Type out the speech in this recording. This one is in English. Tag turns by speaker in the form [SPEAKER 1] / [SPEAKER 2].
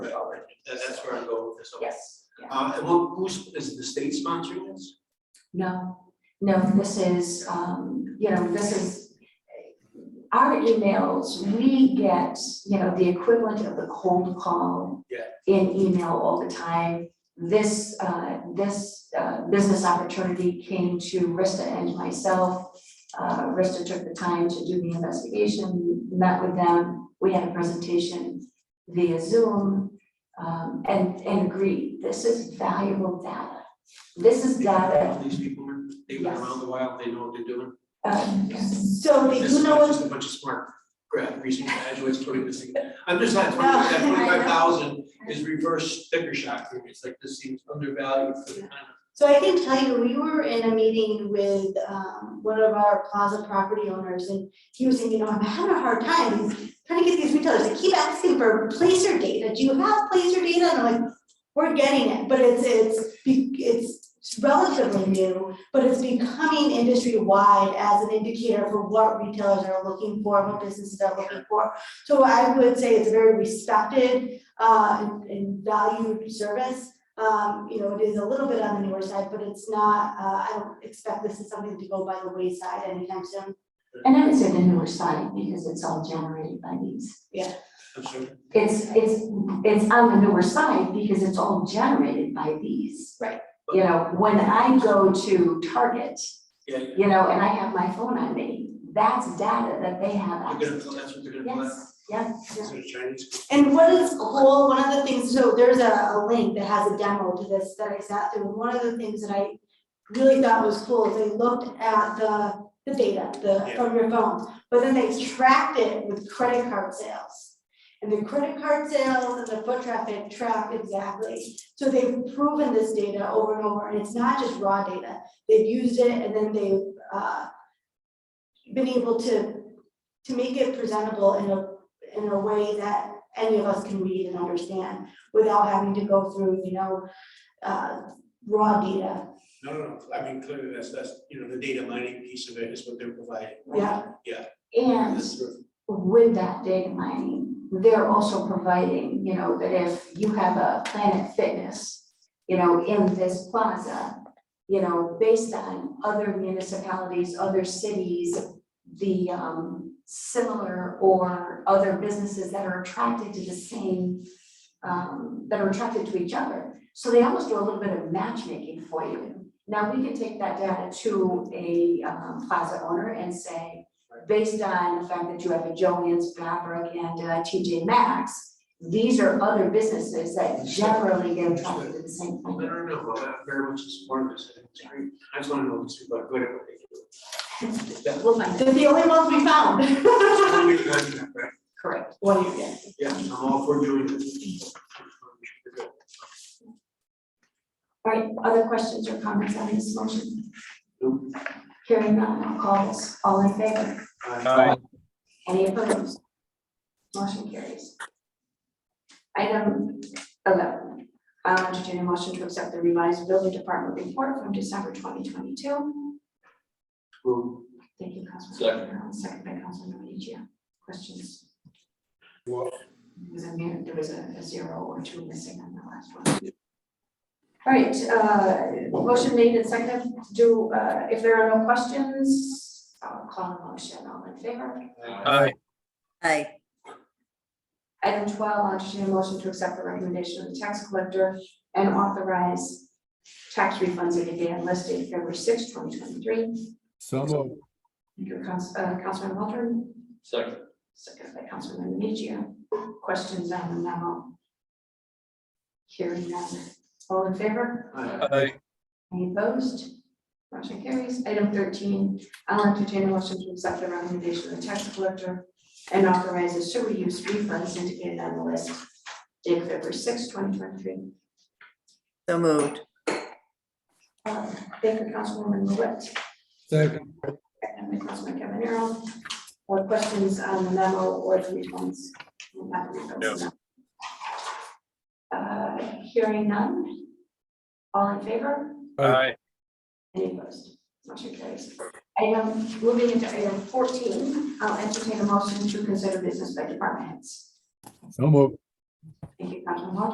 [SPEAKER 1] so.
[SPEAKER 2] Yes, yeah.
[SPEAKER 1] Uh, and who- who's, is the state sponsoring this?
[SPEAKER 2] No, no, this is, um, you know, this is, our emails, we get, you know, the equivalent of the cold call
[SPEAKER 1] Yeah.
[SPEAKER 2] in email all the time. This, uh, this, uh, business opportunity came to Rista and myself. Uh, Rista took the time to do the investigation, met with them, we had a presentation via Zoom, um, and, and agreed, this is valuable data. This is data
[SPEAKER 1] All These people, are- they've been
[SPEAKER 2] Yes.
[SPEAKER 1] around a while, they know what they're doing.
[SPEAKER 2] um,
[SPEAKER 3] So they
[SPEAKER 1] This is
[SPEAKER 3] do know
[SPEAKER 1] not
[SPEAKER 3] what,
[SPEAKER 1] just a bunch of smart grad, recent graduates, totally missing. I'm just not,
[SPEAKER 3] No,
[SPEAKER 1] that
[SPEAKER 3] I know.
[SPEAKER 1] twenty-five thousand is reverse sticker shock for me. It's like this seems undervalued for the kind of.
[SPEAKER 3] so I can tell you, we were in a meeting with um one of our plaza property owners and he was saying, you know, I'm having a hard time trying to get these retailers to keep asking for placer data. Do you have placer data? And I'm like, we're getting it, but it's it's be- it's relatively new, but it's becoming industry wide as an indicator for what retailers are looking for, what businesses are looking for. So I would say it's a very respected uh and- and valued service. Um, you know, it is a little bit on the newer side, but it's not, uh, I don't expect this is something to go by the wayside anytime soon.
[SPEAKER 2] And I would say the newer side, because it's all generated by these.
[SPEAKER 1] I'm sorry.
[SPEAKER 2] It's, it's, it's on the newer side because it's all generated by these.
[SPEAKER 3] Right.
[SPEAKER 2] You know, when I go to Target,
[SPEAKER 1] Yeah, yeah.
[SPEAKER 2] you know, and I have my phone on me, that's data that they have
[SPEAKER 1] They're gonna,
[SPEAKER 2] access
[SPEAKER 1] pull-
[SPEAKER 2] to.
[SPEAKER 1] that's what they're gonna pull out.
[SPEAKER 2] Yes, yes,
[SPEAKER 1] Is
[SPEAKER 2] yes.
[SPEAKER 1] it a Chinese?
[SPEAKER 3] And what is cool, one of the things, so there's a, a link that has a demo to this that I sat through, one of the things that I really thought was cool is they looked at the, the data, the,
[SPEAKER 1] Yeah.
[SPEAKER 3] from your phone, but then they tracked it with credit card sales. And the credit card sales and the foot traffic track exactly, so they've proven this data over and over, and it's not just raw data, they've used it and then they've, uh, been able to, to make it presentable in a in a way that any of us can read and understand without having to go through, you know, uh, raw data.
[SPEAKER 1] No, no, no. I mean, clearly that's, that's, you know, the data mining piece of it is what they're providing.
[SPEAKER 3] Yeah.
[SPEAKER 1] Yeah.
[SPEAKER 2] And with that data mining, they're also providing, you know, that if you have a Planet Fitness, you know, in this plaza, you know, based on other municipalities, other cities, the um similar or other businesses that are attracted to the same um, that are attracted to each other. So they almost do a little bit of matchmaking for you. Now, we can take that data to a um plaza owner and say, based on the fact that you have a Joann's, Fabric, and uh, TJ Maxx, these are other businesses that generally get attracted to the same
[SPEAKER 1] No,
[SPEAKER 2] thing.
[SPEAKER 1] no, no, well, I'm very much in support of this, I think it's great. I just wanna know these people are good at what they do.
[SPEAKER 2] We'll find it.
[SPEAKER 3] They're the only ones we found.
[SPEAKER 1] That's really good, right?
[SPEAKER 2] Correct.
[SPEAKER 3] One year, yeah.
[SPEAKER 1] Yeah, I'm all for doing it.
[SPEAKER 2] All right, other questions or comments on this motion?
[SPEAKER 1] Nope.
[SPEAKER 2] Hearing none, I'll call this. All in favor?
[SPEAKER 1] Aye.
[SPEAKER 2] Any opposed? Motion carries. Item eleven, I'll entertain a motion to accept the revised building department report from December twenty twenty-two.
[SPEAKER 1] Well,
[SPEAKER 2] Thank you, Councilman Brown. Second by Councilman Menichia. Questions?
[SPEAKER 4] Well-
[SPEAKER 2] There was a mere, there was a a zero or two missing on the last one. All right, uh, motion made and seconded. Do, uh, if there are no questions, I'll call a motion. All in favor?
[SPEAKER 4] Aye.
[SPEAKER 5] Aye,
[SPEAKER 2] Item twelve, I'll entertain a motion to accept the recommendation of the tax collector and authorize tax refunds in advance listed February sixth, twenty twenty-three.
[SPEAKER 4] So moved.
[SPEAKER 2] Thank you, Council- uh, Councilman Waldron.
[SPEAKER 1] Second.
[SPEAKER 2] Second by Councilman Minichia. Questions on the memo? Hearing none. All in favor?
[SPEAKER 1] uh,
[SPEAKER 4] Aye.
[SPEAKER 2] Any opposed? Motion carries. Item thirteen, I'll entertain a motion to accept the recommendation of the tax collector and authorize the sewer use refunds indicated on the list dated February sixth, twenty twenty-three.
[SPEAKER 5] so moved.
[SPEAKER 2] Uh, Thank you, Councilwoman Lewitt.
[SPEAKER 4] Second.
[SPEAKER 2] Second by Councilman Cavanero. Or questions on the memo or the refunds? We'll have the refunds now. Uh, hearing none. All in favor?
[SPEAKER 4] Aye.
[SPEAKER 2] Any opposed? Motion carries. Item, moving into item fourteen, I'll entertain a motion to consider business by department heads.
[SPEAKER 4] So moved.
[SPEAKER 2] Thank you, Councilman Waldron.